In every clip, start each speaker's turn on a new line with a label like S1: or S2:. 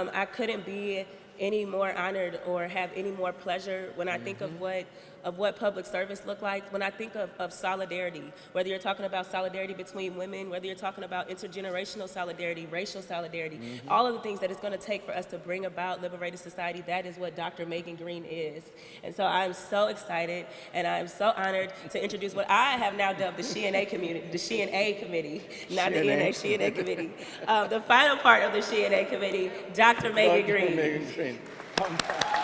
S1: Um, I couldn't be any more honored or have any more pleasure when I think of what of what public service looked like. When I think of, of solidarity, whether you're talking about solidarity between women, whether you're talking about intergenerational solidarity, racial solidarity, all of the things that it's going to take for us to bring about liberated society, that is what Dr. Megan Green is. And so I'm so excited and I'm so honored to introduce what I have now dubbed the She and A community, the She and A committee, not the
S2: She&A.
S1: ENA, She and A committee. Uh, the final part of the She and A committee, Dr. Megan
S2: Dr.
S1: Green.
S2: Megan Green.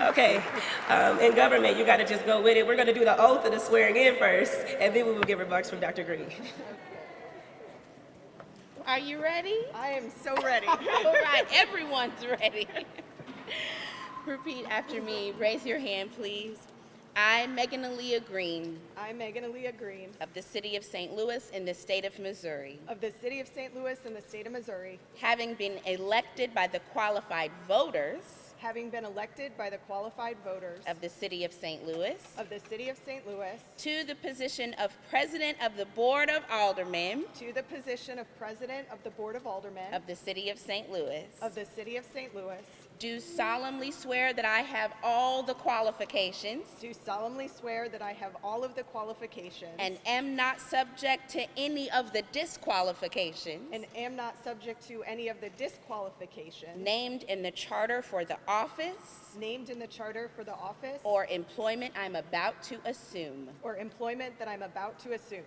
S1: Okay, um, in government, you gotta just go with it. We're gonna do the oath and the swearing in first, and then we will get remarks from Dr. Green.
S3: Are you ready?
S4: I am so ready.
S3: All right, everyone's ready. Repeat after me. Raise your hand, please. I, Megan Aaliyah Green,
S4: I'm Megan Aaliyah Green
S3: of the city of St. Louis in the state of Missouri,
S4: of the city of St. Louis in the state of Missouri,
S3: having been elected by the qualified voters
S4: having been elected by the qualified voters
S3: of the city of St. Louis
S4: of the city of St. Louis
S3: to the position of President of the Board of Aldermen
S4: to the position of President of the Board of Aldermen
S3: of the city of St. Louis,
S4: of the city of St. Louis,
S3: do solemnly swear that I have all the qualifications
S4: do solemnly swear that I have all of the qualifications
S3: And am not subject to any of the disqualifications
S4: and am not subject to any of the disqualifications
S3: named in the charter for the office
S4: named in the charter for the office
S3: or employment I'm about to assume.
S4: or employment that I'm about to assume,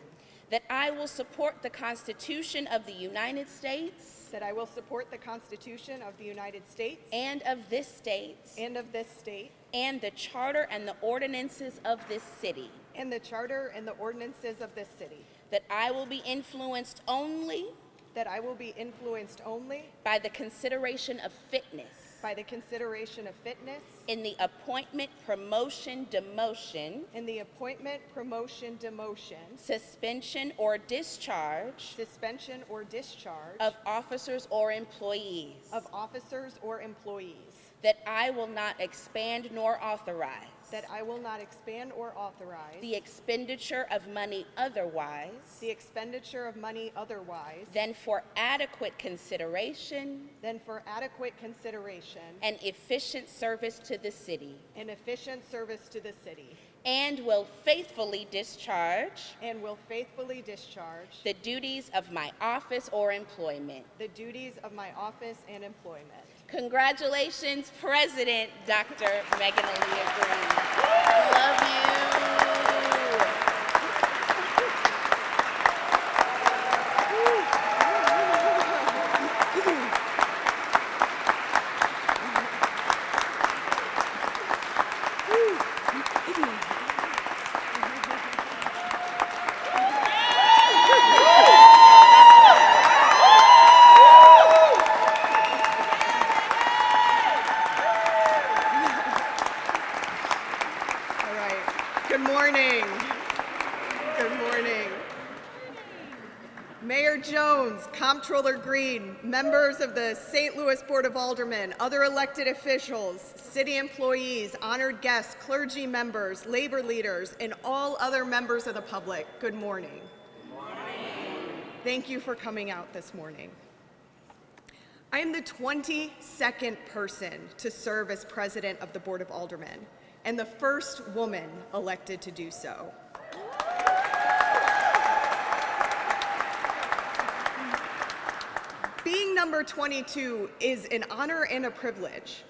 S3: That I will support the Constitution of the United States
S4: that I will support the Constitution of the United States
S3: and of this state
S4: and of this state,
S3: and the charter and the ordinances of this city.
S4: And the charter and the ordinances of this city.
S3: That I will be influenced only
S4: That I will be influenced only
S3: by the consideration of fitness
S4: by the consideration of fitness
S3: in the appointment, promotion, demotion,
S4: in the appointment, promotion, demotion,
S3: suspension, or discharge
S4: suspension, or discharge
S3: of officers or employees.
S4: of officers or employees.
S3: That I will not expand nor authorize.
S4: That I will not expand or authorize
S3: The expenditure of money otherwise
S4: the expenditure of money otherwise
S3: than for adequate consideration
S4: than for adequate consideration
S3: and efficient service to the city.
S4: and efficient service to the city.
S3: And will faithfully discharge
S4: And will faithfully discharge
S3: the duties of my office or employment.
S4: the duties of my office and employment.
S3: Congratulations, President Dr. Megan Aaliyah Green. Love you.
S4: All right. Good morning. Good morning. Mayor Jones, Comptroller Green, members of the St. Louis Board of Aldermen, other elected officials, city employees, honored guests, clergy members, labor leaders, and all other members of the public, good morning. Good morning. Thank you for coming out this morning. I am the 22nd person to serve as president of the Board of Aldermen and the first woman elected to do so. Being number 22 is an honor and a privilege,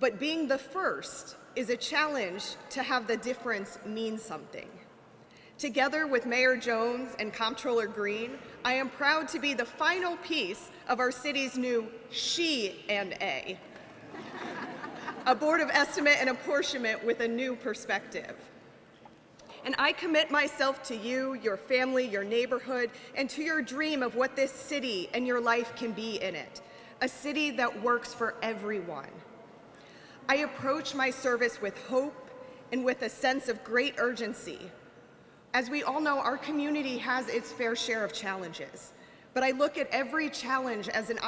S4: but being the first is a challenge to have the difference mean something. Together with Mayor Jones and Comptroller Green, I am proud to be the final piece of our city's new She and A, a board of estimate and apportionment with a new perspective. And I commit myself to you, your family, your neighborhood, and to your dream of what this city and your life can be in it a city that works for everyone. I approach my service with hope and with a sense of great urgency. As we all know, our community has its fair share of challenges, but I look at every challenge as an